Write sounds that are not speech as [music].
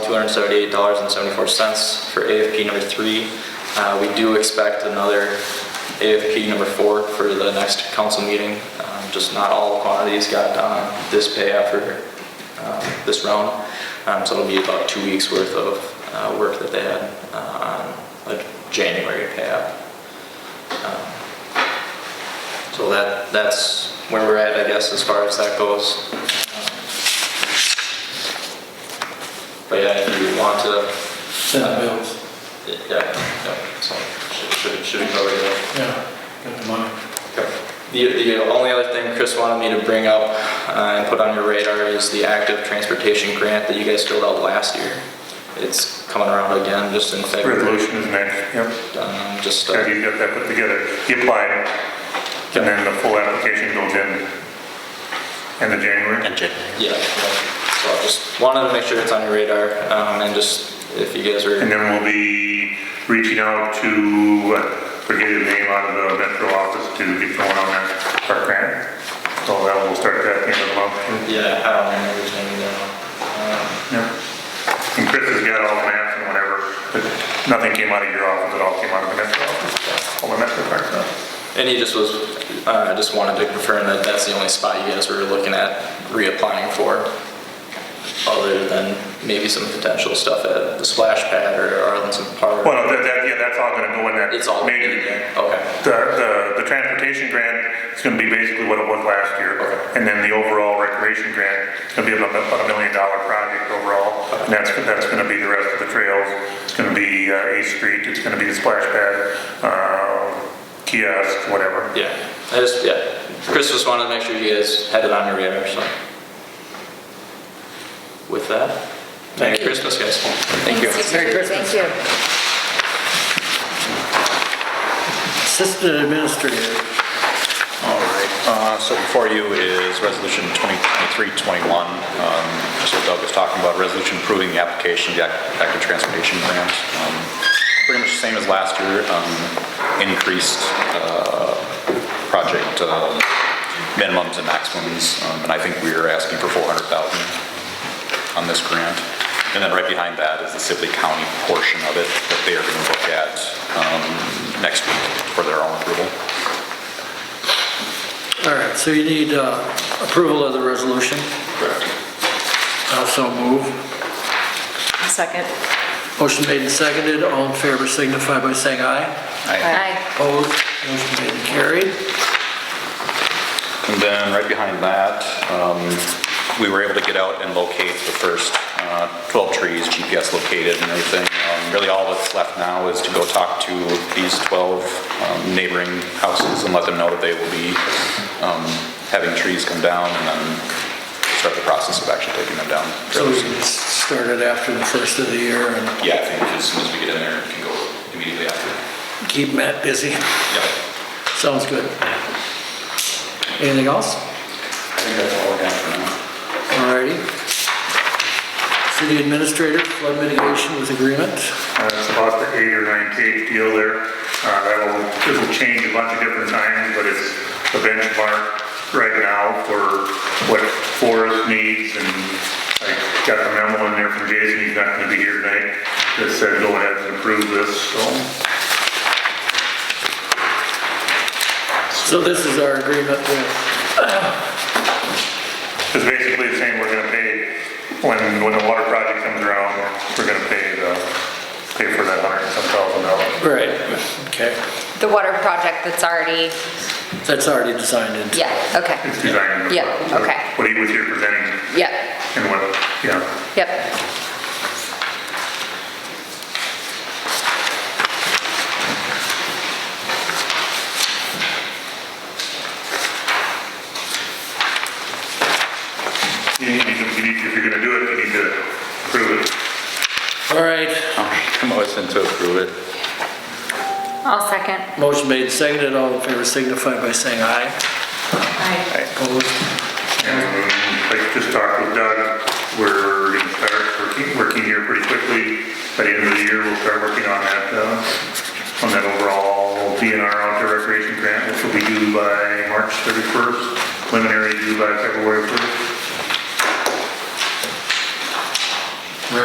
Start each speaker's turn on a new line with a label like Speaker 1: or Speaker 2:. Speaker 1: $278.74 for AFP number three. Uh, We do expect another AFP number four for the next council meeting. Um, Just not all quantities got done on this pay after um, this round. Um, So it'll be about two weeks worth of uh, work that they had uh, on a January pay app. So that, that's where we're at, I guess, as far as that goes. But yeah, if you want to,
Speaker 2: Senate bills,
Speaker 1: yeah, yeah, so should- should, should cover that.
Speaker 2: yeah, got the money.
Speaker 1: Okay. The, the only other thing Chris wanted me to bring up uh, and put on your radar is the active transportation grant that you guys filled out last year. It's coming around again, just in February.
Speaker 3: Resolution is next, yep.
Speaker 1: Um, Just, uh,
Speaker 3: Have you got that put together? You applied, and then the full application goes in, in the January.
Speaker 1: yeah, yeah. so I just wanted to make sure it's on your radar um, and just if you guys
Speaker 3: And
Speaker 1: are,
Speaker 3: then we'll be reaching out to, uh, forget his name, out of the metro office to get going on that, our grant. So that will start at the end of the month.
Speaker 1: yeah, I don't remember his name now. Um,
Speaker 3: Yep. And Chris has got all the maps and whatever, but nothing came out of your office, it all came out of the metro office, all the metro park stuff.
Speaker 1: And he just was, uh, just wanted to confirm that that's the only spot you guys were looking at reapplying for, other than maybe some potential stuff at the splash pad or Arlington Park.
Speaker 3: Well, no, that, that, yeah, that's all gonna go in that.
Speaker 1: It's all.
Speaker 3: major
Speaker 1: Okay,
Speaker 3: The, the, the transportation grant is gonna be basically what it was last year. And then the overall recreation grant is gonna be about a about a million dollar project overall. And that's, that's gonna be the rest of the trails. It's gonna be uh, Eighth Street, it's gonna be the splash pad, uh, kiosk, whatever.
Speaker 1: yeah, I just, yeah, Chris just wanted to make sure you guys had it on your radar, so. With that, Merry Christmas, guys. Thank you.
Speaker 4: Merry Christmas. Thank you.
Speaker 2: Assistant Administrator.
Speaker 5: All right, uh, so before you is Resolution 2023-21. Um, Just what Doug was talking about, resolution approving the application of the act- active transportation grant. Um, Pretty much the same as last year, um, increased uh, project uh, minimums and maximums. Um, And I think we are asking for 400,000 on this grant. And then right behind that is the Sibley County portion of it that they are going to look at um, next week for their own approval.
Speaker 2: All right, so you need uh, approval of the resolution.
Speaker 5: Correct.
Speaker 2: Also move.
Speaker 4: Second.
Speaker 2: Motion made and seconded, all in favor signify by saying aye.
Speaker 4: Aye.
Speaker 2: Opposed, motion made and carried.
Speaker 5: And then right behind that, um, we were able to get out and locate the first uh, 12 trees, GPS located and everything. Um, Really all that's left now is to go talk to these 12 um, neighboring houses and let them know that they will be um, having trees come down and then start the process of actually taking them down.
Speaker 2: So we can start it after the first of the year and
Speaker 5: Yeah, I think as soon as we get in there, we can go immediately after.
Speaker 2: keep Matt busy.
Speaker 5: Yeah.
Speaker 2: Sounds good. Anything else?
Speaker 5: I think that's all I got for [laughs] now.
Speaker 2: All righty. City Administrator, flood mitigation with agreement.
Speaker 3: Uh, It's about the eight or nine page deal there. Uh, That'll, it'll change a bunch of different times, but it's the benchmark right now for what Forrest needs. And I got the memo in there from Jason, he's not gonna be here tonight, that said go ahead and approve this, so.
Speaker 2: So this is our agreement with,
Speaker 3: It's basically the same, we're gonna pay, when, when the water project comes around, we're gonna pay the, pay for that hundred and some thousand dollars.
Speaker 2: right, okay.
Speaker 4: The water project that's already,
Speaker 2: That's already designed into.
Speaker 4: yeah, okay,
Speaker 3: It's designed.
Speaker 4: Yeah, okay.
Speaker 3: What he was here presenting
Speaker 4: yep,
Speaker 3: and what, yeah.
Speaker 4: yep.
Speaker 3: You need, you need, if you're gonna do it, you need to prove it.
Speaker 2: All right,
Speaker 5: Motion to approve it.
Speaker 4: I'll second.
Speaker 2: motion made, seconded, all in favor signify by saying aye.
Speaker 4: Aye.
Speaker 2: Opposed?
Speaker 3: And Um, like just talked with Doug, we're gonna start working, working here pretty quickly. By the end of the year, we'll start working on that, uh, on that overall DNR outdoor recreation grant, which will be due by March 31st, preliminary due by February 1st.